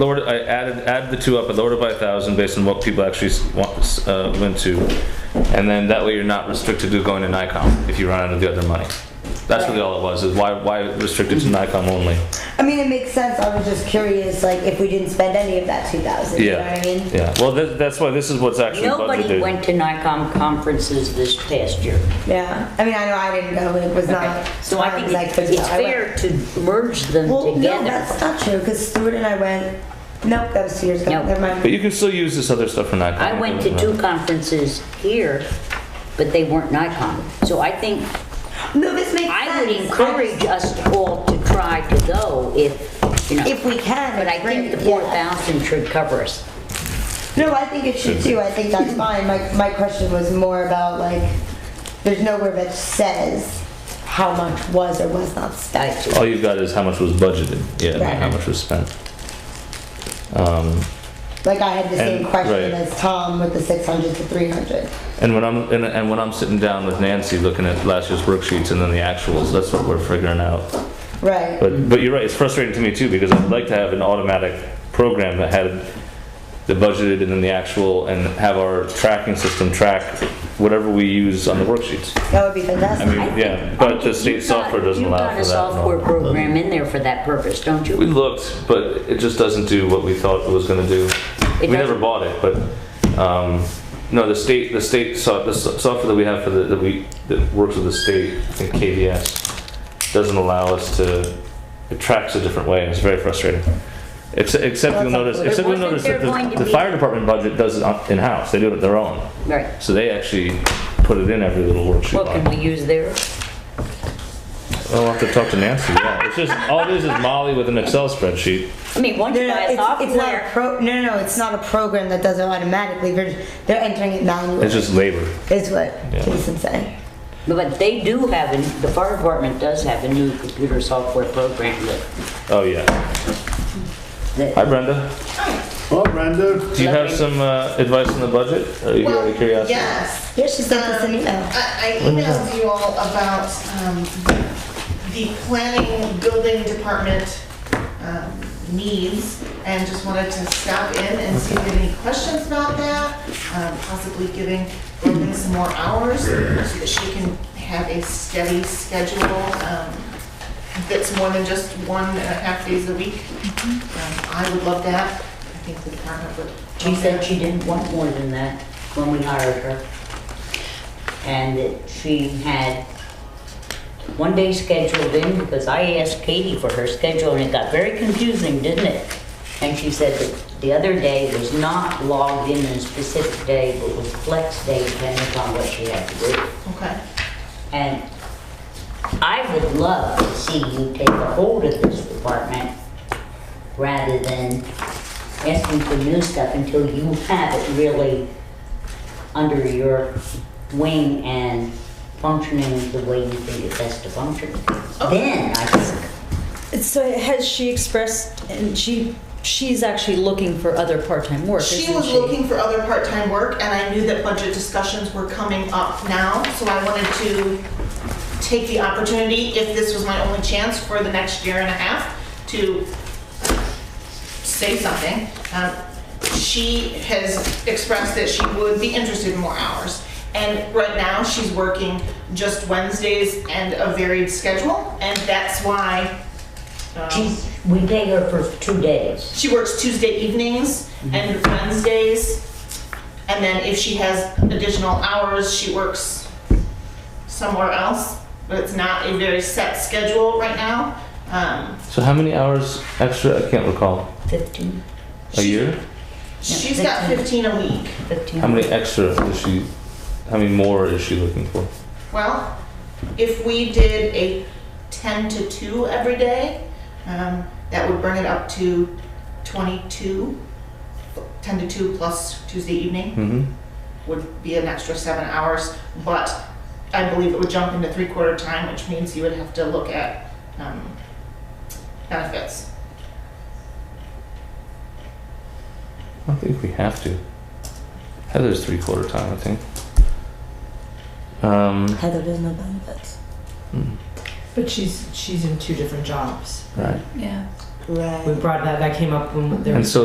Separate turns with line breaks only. lowered, it- I added, added the two up, I lowered it by a thousand based on what people actually s- want, s- uh, went to. And then that way you're not restricted to going to NICOM if you run out of the other money. That's really all it was, is why, why restricted to NICOM only?
I mean, it makes sense. I was just curious, like, if we didn't spend any of that two thousand, you know what
Yeah,
I mean?
yeah, well, that, that's why this is what's actually budgeted.
Nobody went to NICOM conferences this past year.
Yeah, I mean, I know I didn't go, it was not.
So I
smart
think
as
it-
could
it's
go. I went-
fair to merge them
Well, no,
together.
that's not true, because Stuart and I went, nope, that was two years ago,
No.
never
But
mind.
you can still use this other stuff for NICOM.
I went to two conferences here, but they weren't NICOM. So I think,
No, this makes sense.
I would
just-
encourage us all to try to go if, you know.
If we can,
But I think
great,
the
yeah.
4,000 should cover us.
No, I think it should too, I think that's fine, my, my question was more about like, there's nowhere that says how much was or was not
I
spent.
see.
All you've got is how much was budgeted, yeah, not how
Right.
much was spent. Um,
Like, I had the same
And-
question
right.
as Tom with the six hundred to three hundred.
And when I'm, and, and when I'm sitting down with Nancy looking at last year's worksheets and then the actuals, that's what we're figuring out.
Right,
But, but you're right, it's frustrating to me too, because I'd like to have an automatic program that had the budgeted and then the actual and have our tracking system track whatever we use on the worksheets.
that would be
I
fantastic.
mean, yeah, but the state
You've got-
software doesn't allow for
You've got a software
that.
program in there for that purpose, don't
We
you?
looked, but it just doesn't do what we thought it was gonna do. We
It
never
doesn't-
bought it, but, um, no, the state, the state, so, the so- software that we have for the, that we, that works with the state, I think KVS, doesn't allow us to, it tracks a different way, and it's very frustrating. Except, except you'll
Well,
notice,
that's-
except you'll
Wasn't
notice
there
that
going to
the, the
be-
fire department budget does it on- in-house, they do it their own.
Right.
So they actually put it in every little worksheet
What can
line.
we use there?
I'll have to talk to Nancy, yeah, it's just, all it is is Molly with an Excel spreadsheet.
I mean, once
No,
you
no,
buy
it's,
a
it's not a
software,
pro, no, no, no, it's not a program that does it automatically, they're, they're entering it manually,
It's just labor.
is what
Yeah.
Jason's saying.
but they do have, an- the fire department does have a new computer software program that,
Oh, yeah.
that-
Hi, Brenda.
Well, Brenda,
Do you have some uh, advice on the budget? Are you out
Well,
of curiosity?
Yes.
Yeah, she sent us an email.
Um,
I I
When was that?
emailed you all about um, the planning, building department um, needs, and just wanted to stop in and see if you had any questions about that, um, possibly giving Robin some more hours so that she can have a steady schedule um, that's more than just one and a half days a week. Um, I would love that. I think the department would.
she said she didn't want more than that when we hired her. And that she had one day scheduled in, because I asked Katie for her schedule, and it got very confusing, didn't it? And she said that the other day was not logged in on a specific day, but was flex day depending upon what she had to do.
Okay.
And I would love to see you take a hold of this department rather than asking for new stuff until you have it really under your wing and functioning the way you think it best to function. Then I think,
So has she expressed, and she, she's actually looking for other part-time work, isn't she?
She was looking for other part-time work, and I knew that budget discussions were coming up now, so I wanted to take the opportunity, if this was my only chance for the next year and a half, to say something. Um, She has expressed that she would be interested in more hours. And right now, she's working just Wednesdays and a varied schedule, and that's why um,
geez, we pay her for two days.
she works Tuesday evenings and Wednesdays. And then if she has additional hours, she works somewhere else. But it's not a very set schedule right now. Um,
So how many hours extra? I can't recall.
Fifteen,
A year?
she's got
that's-
15 a week.
fifteen.
How many extra is she? How many more is she looking for?
Well, if we did a 10 to 2 every day, um, that would bring it up to 22. 10 to 2 plus Tuesday evening.
Mm-hmm.
would be an extra seven hours, but I believe it would jump into three-quarter time, which means you would have to look at um, benefits.
I don't think we have to. Heather's three quarter time, I think. Um,
Heather doesn't know benefits.
But she's she's in two different jobs.
right.
Yeah.
Right.
We brought that, that came up when there was
And so